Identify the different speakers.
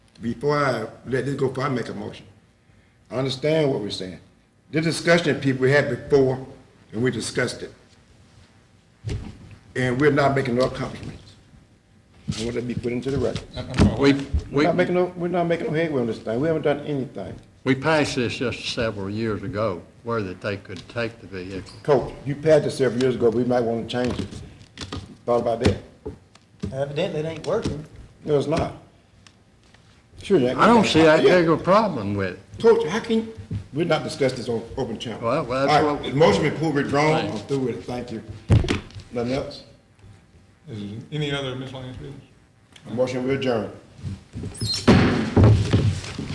Speaker 1: before I let this go, before I make a motion, I understand what we're saying. The discussion that people had before, and we discussed it. And we're not making no accomplishments. I want that to be put into the record.
Speaker 2: We,
Speaker 1: We're
Speaker 2: we,
Speaker 1: not making no, we're not making no headway on this thing. We haven't done anything.
Speaker 2: we passed this just several years ago, where that they could take the vehicle.
Speaker 1: Coach, you passed this several years ago, we might want to change it. Thought about that?
Speaker 3: Evidently, it ain't working.
Speaker 1: No, it's not. Sure, Jack.
Speaker 2: I don't see that
Speaker 1: Yeah.
Speaker 2: big of a problem with it.
Speaker 1: Coach, how can, we're not discussing this on open channel.
Speaker 2: Well, well, that's
Speaker 1: All right,
Speaker 2: what-
Speaker 1: the motion been pulled, withdrawn,
Speaker 2: Right.
Speaker 1: I'm through with it, thank you. Nothing else?
Speaker 4: Is there any other miscellaneous business?
Speaker 1: Motion we adjourn.